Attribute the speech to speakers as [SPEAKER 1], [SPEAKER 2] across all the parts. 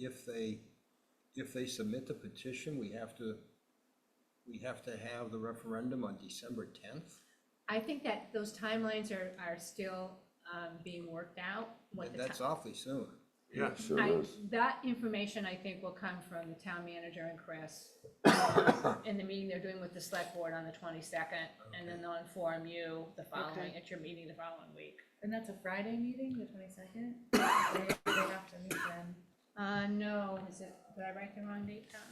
[SPEAKER 1] if they, if they submit the petition, we have to, we have to have the referendum on December tenth?
[SPEAKER 2] I think that those timelines are, are still um, being worked out. what the
[SPEAKER 1] That's
[SPEAKER 2] ti-
[SPEAKER 1] awfully soon.
[SPEAKER 3] Yeah,
[SPEAKER 4] Sure
[SPEAKER 2] I-
[SPEAKER 4] is.
[SPEAKER 2] That information, I think, will come from the town manager and Chris in the meeting they're doing with the select board on the twenty-second, and then they'll inform you the following,
[SPEAKER 5] Okay.
[SPEAKER 2] at your meeting the following week.
[SPEAKER 5] And that's a Friday meeting, the twenty-second? They they have to meet then.
[SPEAKER 2] Uh, no, is it, did I write the wrong date down?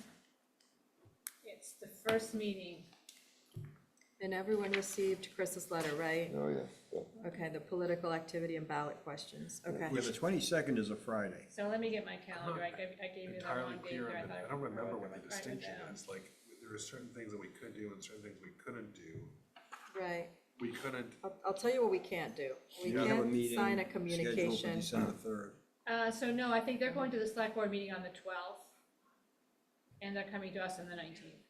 [SPEAKER 2] It's the first meeting.
[SPEAKER 6] And everyone received Chris's letter, right?
[SPEAKER 4] Oh, yeah, yeah.
[SPEAKER 6] Okay, the political activity and ballot questions, okay.
[SPEAKER 1] Yeah, the twenty-second is a Friday.
[SPEAKER 2] So let me get my calendar, I gave, I gave you the
[SPEAKER 3] entirely
[SPEAKER 2] wrong date
[SPEAKER 3] clear
[SPEAKER 2] here, I
[SPEAKER 3] on
[SPEAKER 2] thought.
[SPEAKER 3] that. I don't remember when
[SPEAKER 2] I
[SPEAKER 3] the
[SPEAKER 2] wrote it
[SPEAKER 3] distinction
[SPEAKER 2] down.
[SPEAKER 3] is, like, there were certain things that we could do and certain things we couldn't do.
[SPEAKER 6] Right,
[SPEAKER 3] We couldn't,
[SPEAKER 6] I'll, I'll tell you what we can't do. We
[SPEAKER 1] We have a
[SPEAKER 6] can't
[SPEAKER 1] meeting
[SPEAKER 6] sign a
[SPEAKER 1] scheduled for
[SPEAKER 6] communication.
[SPEAKER 1] December third.
[SPEAKER 2] Uh, so no, I think they're going to the select board meeting on the twelfth, and they're coming to us on the nineteenth.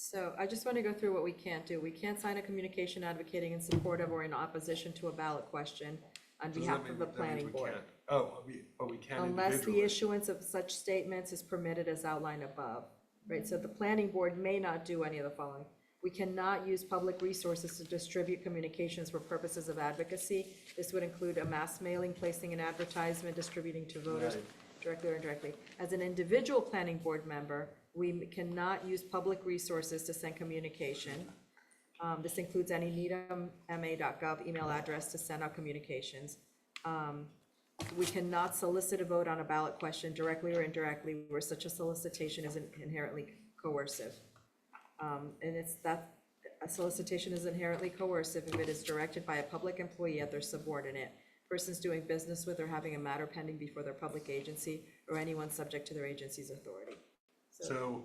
[SPEAKER 6] So I just want to go through what we can't do. We can't sign a communication advocating in support of or in opposition to a ballot question on
[SPEAKER 3] does that
[SPEAKER 6] behalf
[SPEAKER 3] mean
[SPEAKER 6] of
[SPEAKER 3] that
[SPEAKER 6] the
[SPEAKER 3] means
[SPEAKER 6] planning
[SPEAKER 3] we
[SPEAKER 6] board.
[SPEAKER 3] can't? Oh, we, oh, we can
[SPEAKER 6] Unless the
[SPEAKER 3] individually.
[SPEAKER 6] issuance of such statements is permitted as outlined above, right? So the planning board may not do any of the following. We cannot use public resources to distribute communications for purposes of advocacy. This would include a mass mailing, placing an advertisement, distributing to voters directly or indirectly. As an individual planning board member, we cannot use public resources to send communication. Um, this includes any needhamma.gov email address to send out communications. We cannot solicit a vote on a ballot question directly or indirectly where such a solicitation is inherently coercive. Um, and it's that, a solicitation is inherently coercive if it is directed by a public employee at their subordinate, persons doing business with or having a matter pending before their public agency, or anyone subject to their agency's authority.
[SPEAKER 3] So,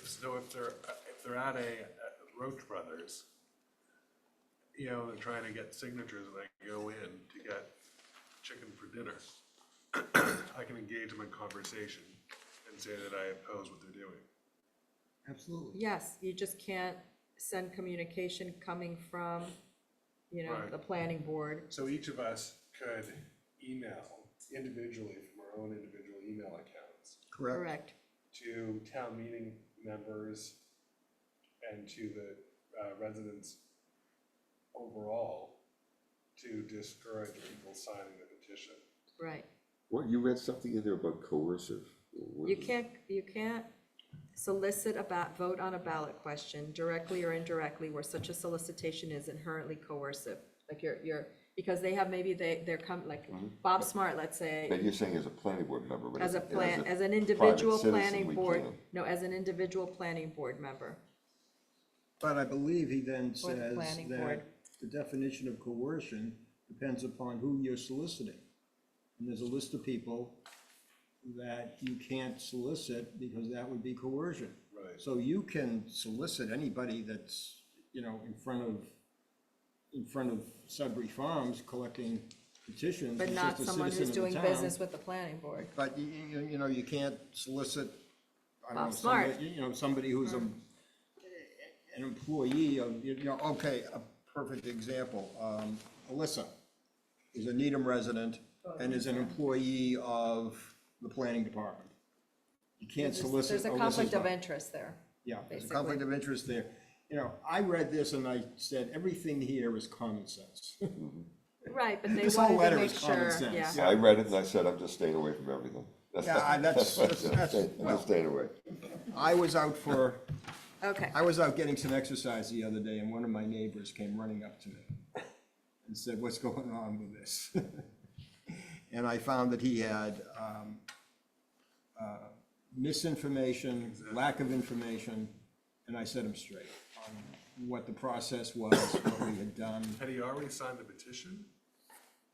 [SPEAKER 3] if, so if they're, if they're at a uh, Roach Brothers, you know, they're trying to get signatures and I go in to get chicken for dinner, I can engage them in conversation and say that I oppose what they're doing.
[SPEAKER 1] Absolutely.
[SPEAKER 6] Yes, you just can't send communication coming from, you know,
[SPEAKER 3] Right.
[SPEAKER 6] the planning board.
[SPEAKER 3] So each of us could email individually from our own individual email accounts
[SPEAKER 1] Correct.
[SPEAKER 6] Correct.
[SPEAKER 3] to town meeting members and to the uh, residents overall to discourage people signing the petition.
[SPEAKER 6] Right.
[SPEAKER 4] What, you read something in there about coercive? What
[SPEAKER 6] You
[SPEAKER 4] is-
[SPEAKER 6] can't, you can't solicit a ba- vote on a ballot question directly or indirectly where such a solicitation is inherently coercive. Like you're, you're, because they have, maybe they, they're come, like
[SPEAKER 1] Mm-hmm.
[SPEAKER 6] Bob Smart, let's
[SPEAKER 4] But
[SPEAKER 6] say,
[SPEAKER 4] you're saying as a planning board member, but
[SPEAKER 6] as a plan, as an
[SPEAKER 4] private
[SPEAKER 6] individual
[SPEAKER 4] citizen,
[SPEAKER 6] planning
[SPEAKER 4] we
[SPEAKER 6] board,
[SPEAKER 4] can't.
[SPEAKER 6] no, as an individual planning board member.
[SPEAKER 1] But I believe he then
[SPEAKER 6] For the
[SPEAKER 1] says
[SPEAKER 6] planning
[SPEAKER 1] that
[SPEAKER 6] board.
[SPEAKER 1] the definition of coercion depends upon who you're soliciting. And there's a list of people that you can't solicit because that would be coercion.
[SPEAKER 3] Right.
[SPEAKER 1] So you can solicit anybody that's, you know, in front of, in front of Sudbury Farms collecting petitions.
[SPEAKER 6] But
[SPEAKER 1] It's
[SPEAKER 6] not
[SPEAKER 1] just a
[SPEAKER 6] someone
[SPEAKER 1] citizen
[SPEAKER 6] who's
[SPEAKER 1] of the
[SPEAKER 6] doing
[SPEAKER 1] town.
[SPEAKER 6] business with the planning board.
[SPEAKER 1] But you, you, you know, you can't solicit, I don't know,
[SPEAKER 6] Bob Smart.
[SPEAKER 1] somebody, you know, somebody who's a, an employee of, you know, okay, a perfect example, um, Alyssa is a Needham resident and is an employee of the planning department. You can't
[SPEAKER 6] There's
[SPEAKER 1] solicit
[SPEAKER 6] there's a
[SPEAKER 1] Alyssa's
[SPEAKER 6] conflict of
[SPEAKER 1] vote.
[SPEAKER 6] interest there.
[SPEAKER 1] Yeah, there's a conflict of interest there. You know, I read this and I said, everything here is common sense.
[SPEAKER 6] Right, but they
[SPEAKER 1] This whole
[SPEAKER 6] wanted
[SPEAKER 1] letter
[SPEAKER 6] to make
[SPEAKER 1] is common
[SPEAKER 6] sure,
[SPEAKER 1] sense.
[SPEAKER 6] yeah.
[SPEAKER 4] I read it and I said, I'm just staying away from everything.
[SPEAKER 1] Yeah, I- that's-
[SPEAKER 4] what I
[SPEAKER 1] that's-
[SPEAKER 4] said.
[SPEAKER 1] that's-
[SPEAKER 4] I'm
[SPEAKER 1] well-
[SPEAKER 4] just staying away.
[SPEAKER 1] I was out for
[SPEAKER 6] Okay,
[SPEAKER 1] I was out getting some exercise the other day and one of my neighbors came running up to me and said, what's going on with this? And I found that he had um, uh, misinformation, lack of information, and I set him straight on what the process was, what we had done.
[SPEAKER 3] Had he already signed the petition?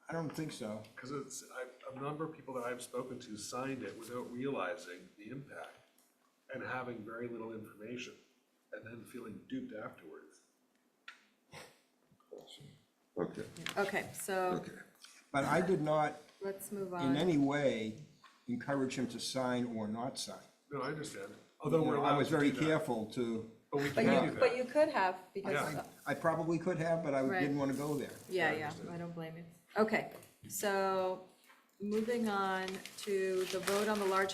[SPEAKER 1] I don't think so.
[SPEAKER 3] Because it's, I, a number of people that I've spoken to signed it without realizing the impact and having very little information and then feeling duped afterwards.
[SPEAKER 4] Okay,
[SPEAKER 6] okay, so
[SPEAKER 4] okay.
[SPEAKER 1] But I did not
[SPEAKER 6] let's move on.
[SPEAKER 1] in any way encourage him to sign or not sign.
[SPEAKER 3] No, I understand, although
[SPEAKER 1] You
[SPEAKER 3] we're
[SPEAKER 1] know,
[SPEAKER 3] allowed
[SPEAKER 1] I was
[SPEAKER 3] to do
[SPEAKER 1] very
[SPEAKER 3] that,
[SPEAKER 1] careful to,
[SPEAKER 3] But we
[SPEAKER 6] But
[SPEAKER 3] can do
[SPEAKER 6] you, but
[SPEAKER 3] that.
[SPEAKER 6] you could have, because,
[SPEAKER 3] Yeah.
[SPEAKER 1] I probably could have, but I
[SPEAKER 6] Right.
[SPEAKER 1] didn't want to go there.
[SPEAKER 6] yeah, yeah, I don't blame you. Okay, so Moving on to the vote on the large